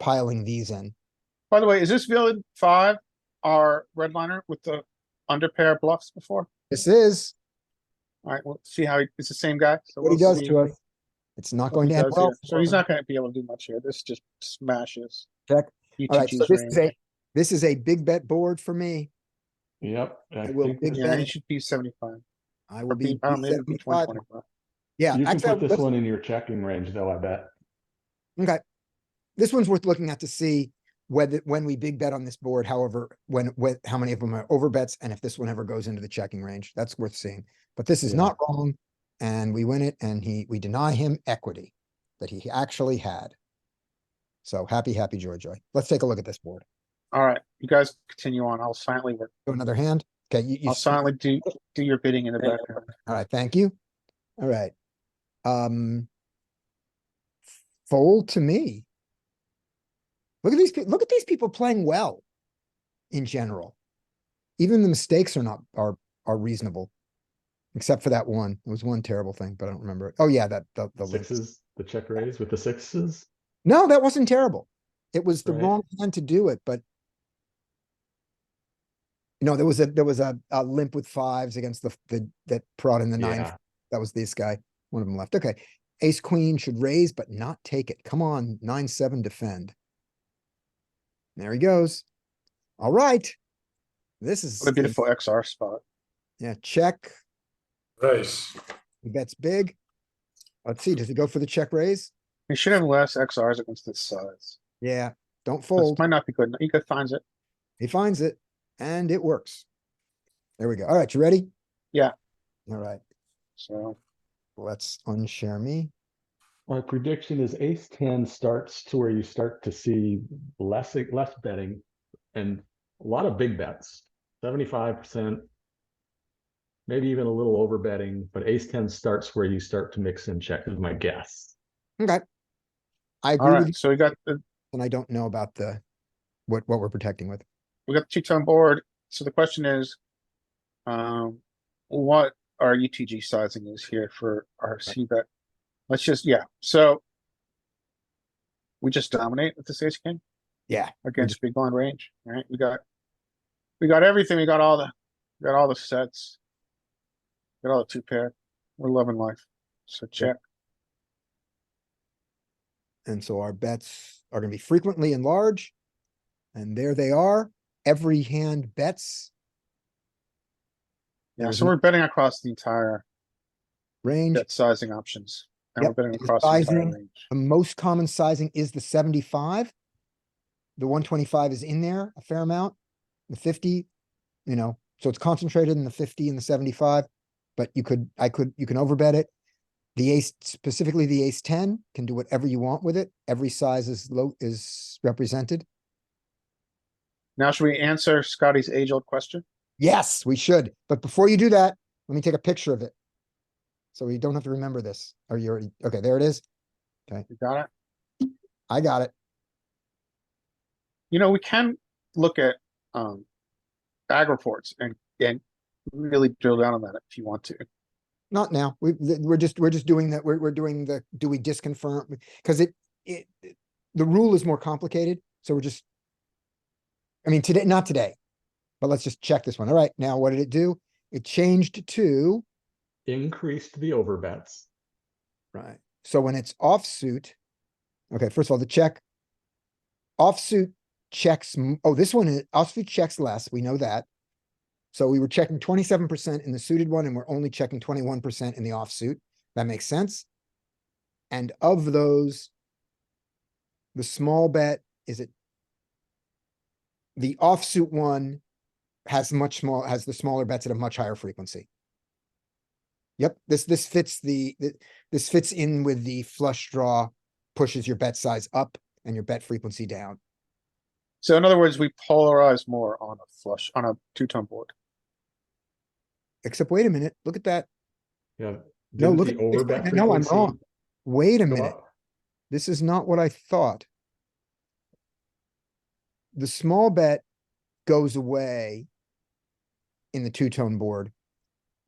piling these in. By the way, is this villain five our red liner with the under pair bluffs before? This is Alright, we'll see how he, it's the same guy. so what he we'll does see to us. It's not what going he to end does well. here. So he's not gonna be able to do much here. This just smashes. Check. UTG's Alright, so this is range. a, this is a big bet board for me. Yep. I I will think big this- bet. Yeah, he should be seventy-five. I Or will be, be I don't know, maybe be 75. 125. Yeah, You can actually, put this let's- one in your checking range though, I bet. okay. This one's worth looking at to see whether, when we big bet on this board, however, when, when, how many of them are over bets and if this one ever goes into the checking range, that's worth seeing. But this is Yeah. not wrong and we win it and he, we deny him equity that he actually had. So happy, happy joy, joy. Let's take a look at this board. Alright, you guys continue on. I'll silently work. Do another hand. Okay, you, you. I'll silently do, do your bidding in the background. All right, thank you. All right. Um. Fold to me. Look at these, peo- look at these people playing well. In general. Even the mistakes are not, are, are reasonable. Except for that one. It was one terrible thing, but I don't remember it. Oh, yeah, that, the, the. loop. Sixes, the check raise with the sixes. No, that wasn't terrible. It was the Right. wrong hand to do it, but. No, there was a, there was a, a limp with fives against the, the, that prod in the nine. Yeah, That was this guy. One of them left. Okay. Ace queen should raise, but not take it. Come on, nine, seven, defend. There he goes. All right. This is. What a beautiful XR spot. Yeah, check. Raise. He bets big. Let's see, does he go for the check raise? He should have less XRs against this size. Yeah, don't This fold. might not be good. He could finds it. He finds it and it works. There we go. All right, you ready? Yeah. All right, So let's unshare me. my prediction is ace ten starts to where you start to see less, less betting and a lot of big bets, seventy-five percent. Maybe even a little over betting, but ace ten starts where you start to mix and check is my guess. Okay. I all agree with you, right, so we got the and I don't know about the, what, what we're protecting with. we got the two tone board. So the question is, um, what our UTG sizing is here for our C bet? Let's just yeah. So we just dominate with this ace king Yeah, against big blind range. Right? We got we got everything. We got all the we got all the sets. Got all the two pair. We're loving life. So check. And so our bets are gonna be frequently and large. And there they are. Every hand bets Yeah. There's So n- we're betting across the entire range. bet sizing options. And we're Yep, betting and across the entire sizing. range. The most common sizing is the seventy-five. The one twenty-five is in there a fair amount. The fifty, you know, so it's concentrated in the fifty and the seventy-five. But you could, I could, you can overbet it. The ace, specifically the ace ten, can do whatever you want with it. Every size is low, is represented. Now should we answer Scotty's age old question? Yes, we should. But before you do that, let me take a picture of it. So we don't have to remember this. Are you already? Okay, there it is. You got it? I got it. You know, we can look at um ag reports and and really drill down on that if you want to. Not now. We, th- we're just, we're just doing that. We're, we're doing the, do we disconfirm? Because it, it, it- the rule is more complicated. So we're just, I mean, today, not today, but let's just check this one. All right, now what did it do? It changed to, Increased the over bets. right? So when it's offsuit, okay, first of all, the check. Offsuit checks, m- oh, this one, is offsuit checks less. We know that. So we were checking twenty-seven percent in the suited one and we're only checking twenty-one percent in the offsuit. That makes sense. And of those, the small bet, is it? The offsuit one has much small, has the smaller bets at a much higher frequency. Yep, this, this fits the, th- this fits in with the flush draw, pushes your bet size up and your bet frequency down. So in other words, we polarize more on a flush on a two tone board. Except, wait a minute, look at that. Yeah. No, didn't look the at, this over bet one- no, I'm frequency wrong. Wait a go minute. up? This is not what I thought. The small bet goes away in the two-tone board.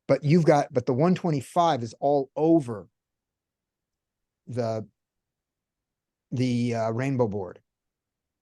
But you've got, but the one twenty-five is all over the the uh, rainbow board.